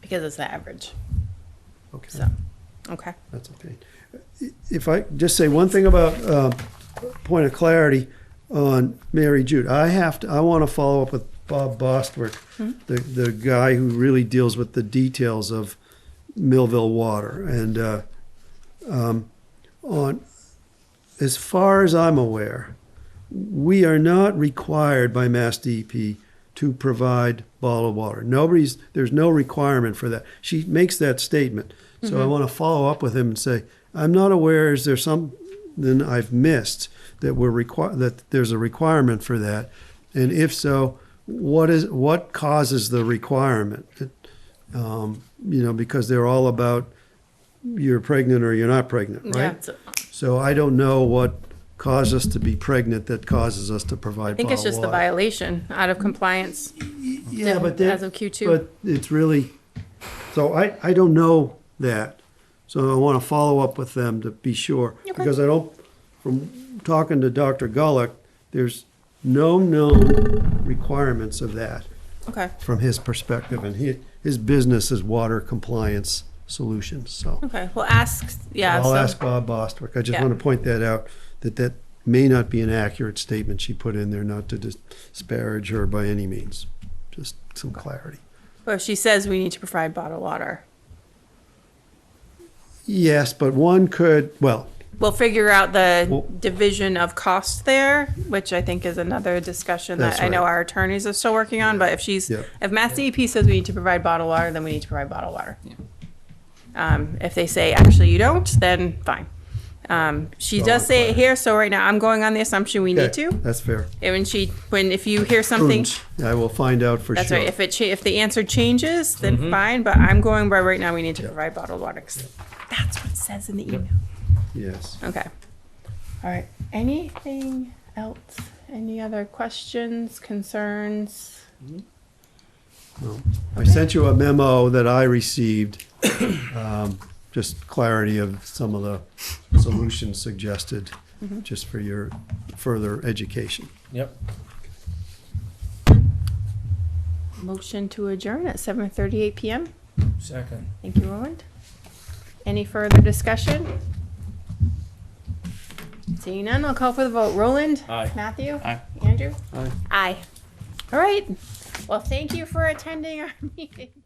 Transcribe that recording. because it's the average. Okay, So, okay. that's okay. If I just say one thing about, uh, point of clarity on Mary Jude, I have to, I want to follow up with Bob Bostwick, the, the guy who really deals with the details of Millville Water. And, uh, um, on, as far as I'm aware, we are not required by Mass DEP to provide bottled water. Nobody's there's no requirement for that. She makes that statement. So I want to follow up with him and say, I'm not aware is there something I've missed that we're require that there's a requirement for that. And if so, what is what causes the requirement? Um, you know, because they're all about you're pregnant or you're not pregnant, right? Yeah. so- So I don't know what caused us to be pregnant that causes us to I provide think it's bottled just the water. violation out of compliance. Yeah, yeah, but that- as of Q2. But it's really, so I, I don't know that. So I want to follow up with them to be sure. Okay. Because I don't, from talking to Dr. Gullik, there's no known requirements of that Okay. from his perspective. And he, his business is water compliance solutions, so. Okay. Well, ask. Yeah. I'll so, ask Bob Bostwick. I just Yeah. want to point that out, that that may not be an accurate statement she put in there, not to dis- disparage her by any means. Just some clarity. But if she says we need to provide bottled water, Yes, but one could, well, we'll figure out the Well- division of cost there, which I think is another discussion that That's I know right. our attorneys are still working on. But if she's, Yeah. if Mass DEP says we need to provide bottled water, then we need to provide bottled water. Um, if they say actually you don't, then fine. Um, she Well, does say it required. here, so right now I'm going on the assumption we need okay, to. that's fair. And when she, when if you hear something, Prudence. I will find out for That's sure. right. If it cha- if the answer changes, then fine. But I'm going by right now. We need to provide bottled water. 'cause That's what it says in the email. Yes. Okay. All right. Anything else? Any other questions, concerns? Well, I sent you a memo that I received, um, just clarity of some of the solutions suggested, Mm-hmm. just for your further education. Yep. Motion to adjourn at 7:38 p.m. Second. Thank you, Roland. Any further discussion? Seeing none, I'll call for the vote. Roland? Aye. Matthew? Aye. Andrew? Aye. Aye. All right. Well, thank you for attending our meeting.